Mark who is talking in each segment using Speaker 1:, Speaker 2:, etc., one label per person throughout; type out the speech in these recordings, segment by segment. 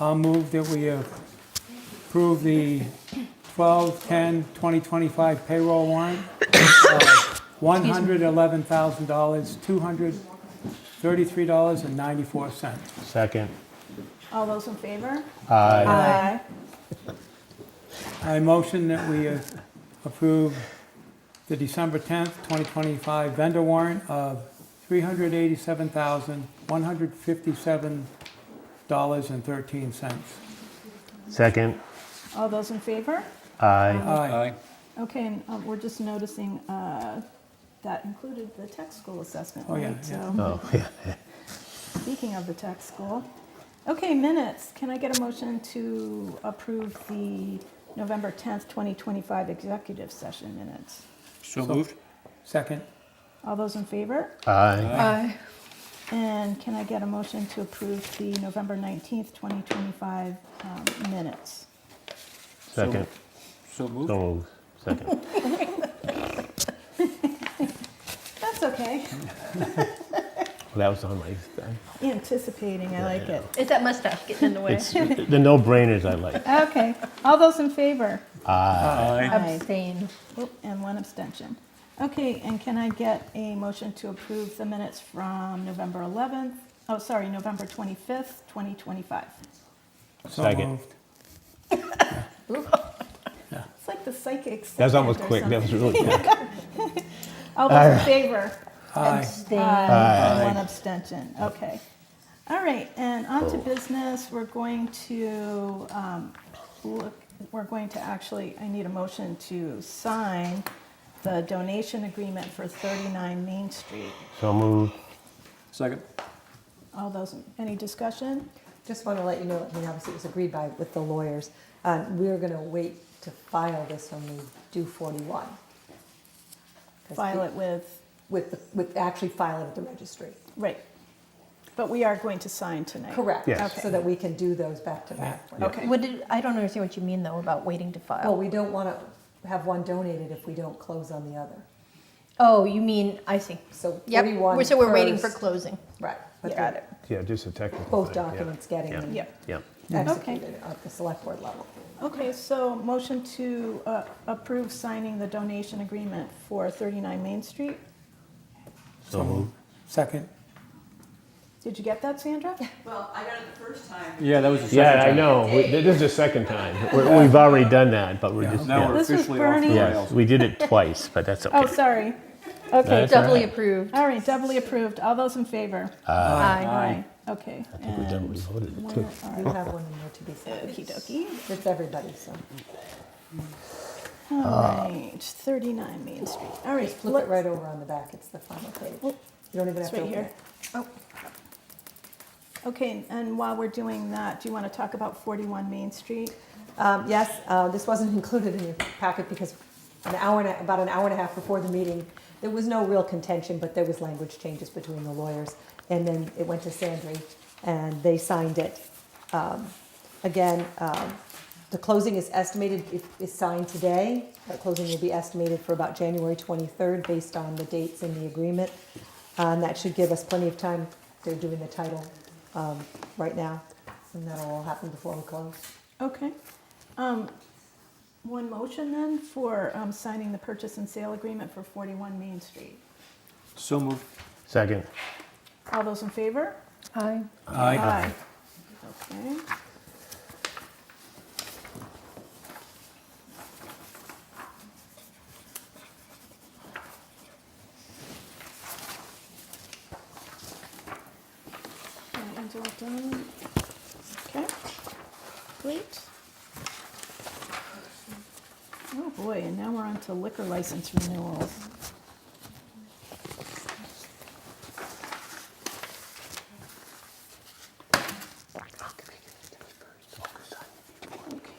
Speaker 1: I'll move that we approve the 12/10/2025 payroll warrant of $111,233.94.
Speaker 2: Second.
Speaker 3: All those in favor?
Speaker 2: Aye.
Speaker 3: Aye.
Speaker 1: I motion that we uh, approve the December 10th, 2025 vendor warrant of $387,157.13.
Speaker 2: Second.
Speaker 3: All those in favor?
Speaker 2: Aye.
Speaker 1: Aye.
Speaker 3: Okay, and um, we're just noticing uh, that included the tech school assessment,
Speaker 1: Oh, yeah,
Speaker 3: right?
Speaker 1: yeah.
Speaker 2: Oh,
Speaker 3: So,
Speaker 2: yeah.
Speaker 3: speaking of the tech school, okay, minutes. Can I get a motion to approve the November 10th, 2025 executive session minutes?
Speaker 4: So moved.
Speaker 1: Second.
Speaker 3: All those in favor?
Speaker 2: Aye.
Speaker 5: Aye.
Speaker 3: And can I get a motion to approve the November 19th, 2025 um, minutes?
Speaker 2: Second.
Speaker 4: So moved.
Speaker 2: So moved. Second.
Speaker 3: That's okay.
Speaker 2: That was on my,
Speaker 3: Anticipating, I like it.
Speaker 5: It's that mustache getting in the way.
Speaker 2: it's the no-brainers I like.
Speaker 3: Okay, all those in favor?
Speaker 4: Aye.
Speaker 5: Abstain.
Speaker 3: Oop, And one abstention. Okay, and can I get a motion to approve the minutes from November 11th? Oh, sorry, November 25th, 2025.
Speaker 1: So
Speaker 2: Second.
Speaker 1: moved.
Speaker 3: It's like the psychic.
Speaker 2: That was almost
Speaker 3: or
Speaker 2: quick. That was
Speaker 3: something.
Speaker 2: really quick.
Speaker 3: All those in favor?
Speaker 1: Aye.
Speaker 5: Abstain.
Speaker 3: Aye. One abstention, okay. All right, and on to business, we're going to, um, look, we're going to actually, I need a motion to sign the donation agreement for 39 Main Street.
Speaker 2: So moved.
Speaker 4: Second.
Speaker 3: All those, any discussion?
Speaker 6: Just want to let you know, I mean, obviously it was agreed by, with the lawyers, uh, we're going to wait to file this when we do 41. 'Cause
Speaker 3: File
Speaker 6: we-
Speaker 3: it with,
Speaker 6: With, the- with actually filing with the registry.
Speaker 3: right. But we are going to sign tonight.
Speaker 6: Correct.
Speaker 2: Yes.
Speaker 6: So that we can do those back to back.
Speaker 3: Okay,
Speaker 5: What did, I don't understand what you mean though about waiting to
Speaker 6: Well,
Speaker 5: file.
Speaker 6: we don't want to have one donated if we don't close on the other.
Speaker 5: Oh, you mean, I see.
Speaker 6: So
Speaker 5: Yep,
Speaker 6: 41
Speaker 5: we're- so we're waiting for
Speaker 6: first.
Speaker 5: closing.
Speaker 6: Right. but
Speaker 3: got
Speaker 6: the-
Speaker 3: it.
Speaker 2: Yeah, just a technical
Speaker 6: Both
Speaker 2: thing, yeah.
Speaker 6: documents getting
Speaker 2: Yeah.
Speaker 6: them
Speaker 3: Yep.
Speaker 2: Yep.
Speaker 6: executed at the select board level.
Speaker 3: Okay, so motion to uh, approve signing the donation agreement for 39 Main Street.
Speaker 2: So moved.
Speaker 1: Second.
Speaker 3: Did you get that, Sandra?
Speaker 7: Well, I got it the first time.
Speaker 4: Yeah, that was the second
Speaker 2: Yeah, I
Speaker 4: time.
Speaker 2: know. We- This is the second time. We're- We've already done that, but we're just,
Speaker 4: Now
Speaker 2: yeah.
Speaker 4: we're
Speaker 3: This was
Speaker 4: officially off the
Speaker 3: Bernie.
Speaker 2: Yes,
Speaker 4: rails.
Speaker 2: we did it twice, but that's
Speaker 3: Oh,
Speaker 2: okay.
Speaker 3: sorry. Okay,
Speaker 2: That's all
Speaker 5: Doubly
Speaker 2: right.
Speaker 5: approved.
Speaker 3: all right, doubly approved. All those in favor?
Speaker 5: Aye.
Speaker 3: Okay. I
Speaker 2: think we've done what we voted to.
Speaker 6: You have one in there to be signed.
Speaker 3: Okey dokey.
Speaker 6: It's everybody, so
Speaker 3: All right, 39 Main Street. All right.
Speaker 6: flip it
Speaker 3: let's-
Speaker 6: right over on the back. It's the final page. You
Speaker 3: Oop,
Speaker 6: don't even have
Speaker 3: It's
Speaker 6: to
Speaker 3: right
Speaker 6: open
Speaker 3: here.
Speaker 6: it.
Speaker 3: Okay, and while we're doing that, do you want to talk about 41 Main Street?
Speaker 6: Um, Yes, uh, this wasn't included in your packet because an hour, and a- about an hour and a half before the meeting, there was no real contention, but there was language changes between the lawyers. And then it went to Sandry, and they signed it. Um, Again, um, the closing is estimated, i- is signed today. The closing will be estimated for about January 23rd, based on the dates in the agreement. Uh, And that should give us plenty of time. They're doing the title um, right now, and that'll all happen before we close.
Speaker 3: Okay. Um, One motion then for um, signing the purchase and sale agreement for 41 Main Street.
Speaker 4: So moved.
Speaker 2: Second.
Speaker 3: All those in favor?
Speaker 5: Aye.
Speaker 1: Aye.
Speaker 3: Okay. Alright, Angela done. Okay, great. Oh boy, and now we're on to liquor license renewals.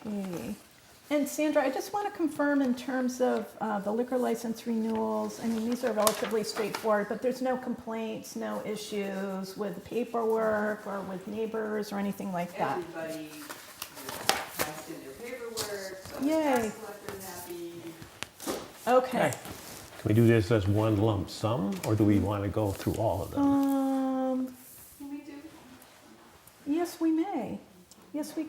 Speaker 3: Okay. And Sandra, I just want to confirm in terms of uh, the liquor license renewals, I mean, these are relatively straightforward, but there's no complaints, no issues with paperwork or with neighbors or anything like that?
Speaker 7: Everybody passed in their paperwork, so the
Speaker 3: Yay.
Speaker 7: tax collector's happy.
Speaker 3: Okay.
Speaker 2: Can we do this as one lump sum, or do we want to go through all of them?
Speaker 3: Um,
Speaker 7: Can we do?
Speaker 3: yes, we may. Yes, we